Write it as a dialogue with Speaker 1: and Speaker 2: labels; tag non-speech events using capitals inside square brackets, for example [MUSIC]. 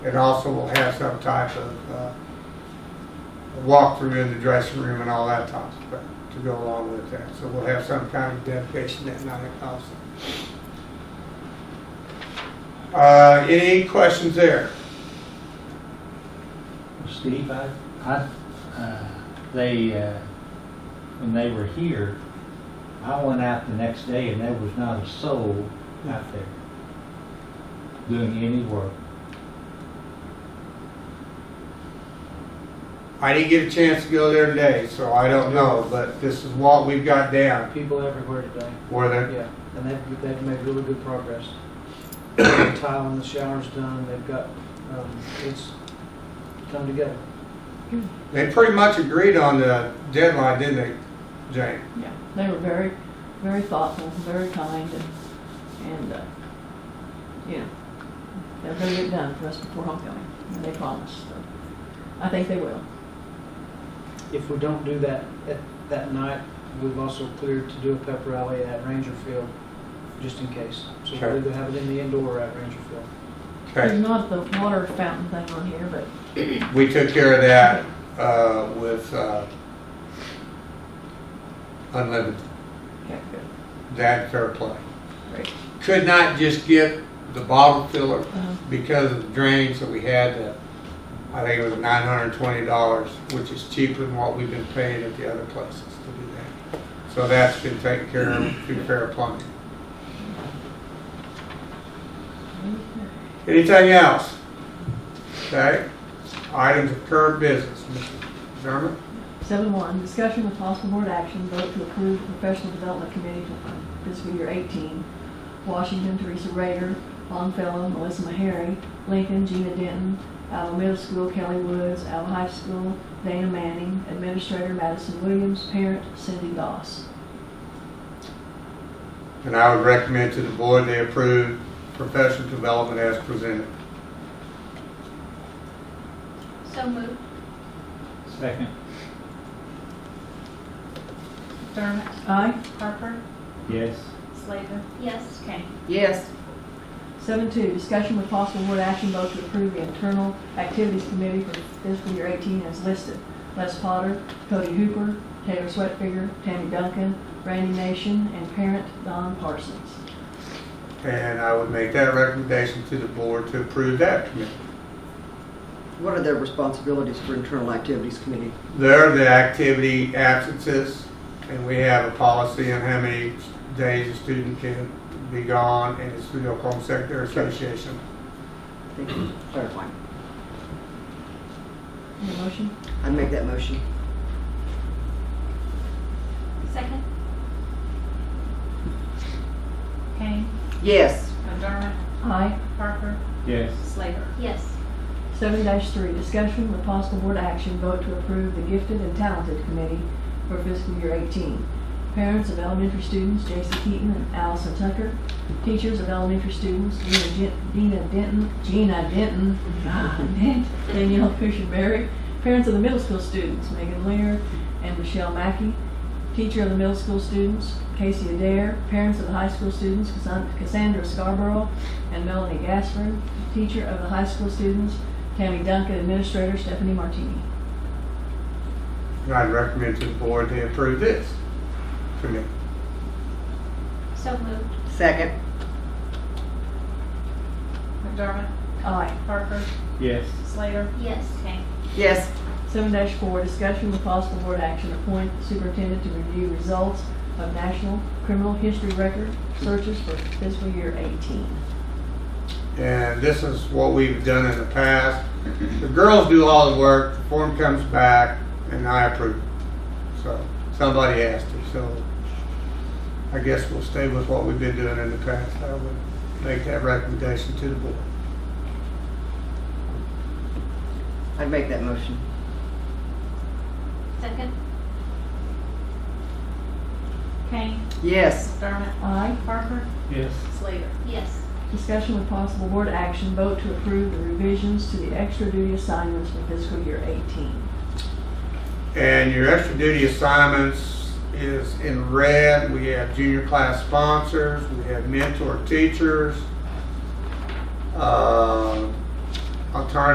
Speaker 1: It also will have some type of uh, walkthrough in the dressing room and all that type of stuff to go along with that. So we'll have some kind of dedication that night also. Uh, Any questions there?
Speaker 2: Steve, I, I, uh, they, uh, when they were here, I went out the next day and there was not a soul out there doing any work.
Speaker 1: I didn't get a chance to go there today, so I don't know, but this is what we've got down.
Speaker 3: People everywhere today,
Speaker 1: Were there?
Speaker 3: yeah, and they've, they've made really good progress. The Tile in the shower's done, they've got, um, it's come together.
Speaker 1: They pretty much agreed on the deadline, didn't they, Jane?
Speaker 4: Yeah, they were very, very thoughtful, very kind, and, and, uh, you know, they're gonna get done for us before homecoming, and they promised, so. I think they will.
Speaker 3: If we don't do that at, that night, we've also cleared to do a pep rally at Ranger Field, just in case. So
Speaker 1: Sure.
Speaker 3: we'll either have it in the indoor or at Ranger Field.
Speaker 1: Okay.
Speaker 4: There's not the water fountain thing on here, but
Speaker 1: We took care of that uh, with uh, Unlimited,
Speaker 4: Okay, good,
Speaker 1: that fair play.
Speaker 4: great.
Speaker 1: Could not just get the bottle filler
Speaker 4: Uh-huh.
Speaker 1: because of the drains that we had, that I think it was nine hundred and twenty dollars, which is cheaper than what we've been paying at the other places to do that. So that's been taken care of through fair plumbing. Anything else? Okay, items of current business, Mr. Sherman?
Speaker 4: Seven one, discussion with possible board action, vote to approve professional development committee for fiscal year eighteen. Washington, Teresa Rader, Longfellow, Melissa Meharry, Lincoln, Gina Denton, Alva Middle School, Kelly Woods, Alva High School, Dana Manning, Administrator Madison Williams, parent Cindy Doss.
Speaker 1: And I would recommend to the board they approve professional development as presented.
Speaker 5: So moved.
Speaker 2: Second,
Speaker 6: McDermott,
Speaker 4: Aye.
Speaker 6: Parker,
Speaker 2: yes,
Speaker 6: Slater,
Speaker 5: Yes.
Speaker 6: Kane.
Speaker 5: Yes.
Speaker 4: Seven two, discussion with possible board action vote to approve the internal activities committee for fiscal year eighteen as listed. Les Potter, Cody Hooper, Taylor Sweatfigger, Tammy Duncan, Randy Nation, and parent Don Parsons.
Speaker 1: And I would make that recommendation to the board to approve that committee.
Speaker 7: What are their responsibilities for internal activities committee?
Speaker 1: There, the activity absences, and we have a policy on how many days a student can be gone, and it's through the Oklahoma Secretary Association.
Speaker 7: Thank you [CLEARS THROAT] for clarifying.
Speaker 4: Any motion?
Speaker 7: I'd make that motion.
Speaker 5: Second?
Speaker 6: Kane,
Speaker 7: Yes.
Speaker 6: McDermott,
Speaker 4: Aye.
Speaker 6: Parker,
Speaker 2: yes,
Speaker 6: Slater.
Speaker 5: Yes.
Speaker 4: Seven three, discussion with possible board action vote to approve the gifted and talented committee for fiscal year eighteen. Parents of elementary students, Jason Keaton and Allison Tucker. Teachers of elementary students, Gina Gen- Dina Denton, Gina Denton, [LAUGHS] God, Dent- Danielle Cushionberry. Parents of the middle school students, Megan Lear and Michelle Mackey. Teacher of the middle school students, Casey Adair. Parents of the high school students, Cassan- Cassandra Scarborough and Melanie Gasper. Teacher of the high school students, Tammy Duncan, Administrator Stephanie Martini.
Speaker 1: And I'd recommend to the board they approve this committee.
Speaker 5: So moved.
Speaker 7: Second.
Speaker 6: McDermott,
Speaker 4: Aye.
Speaker 6: Parker,
Speaker 2: yes,
Speaker 6: Slater,
Speaker 5: Yes.
Speaker 6: Kane.
Speaker 7: Yes.
Speaker 4: Seven four, discussion with possible board action, appoint superintendent to review results of national criminal history record searches for fiscal year eighteen.
Speaker 1: And this is what we've done in the past. The girls do all the work, the form comes back, and I approve. it. So, somebody asked me, so I guess we'll stay with what we've been doing in the past. I would make that recommendation to the board.
Speaker 7: I'd make that motion.
Speaker 5: Second?
Speaker 6: Kane,
Speaker 7: Yes.
Speaker 6: McDermott,
Speaker 4: Aye.
Speaker 6: Parker,
Speaker 2: yes,
Speaker 6: Slater.
Speaker 5: Yes.
Speaker 4: Discussion with possible board action, vote to approve the revisions to the extra duty assignments for fiscal year eighteen.
Speaker 1: And your extra duty assignments is in red. We have junior class sponsors, we have mentor teachers. Uh, I'll try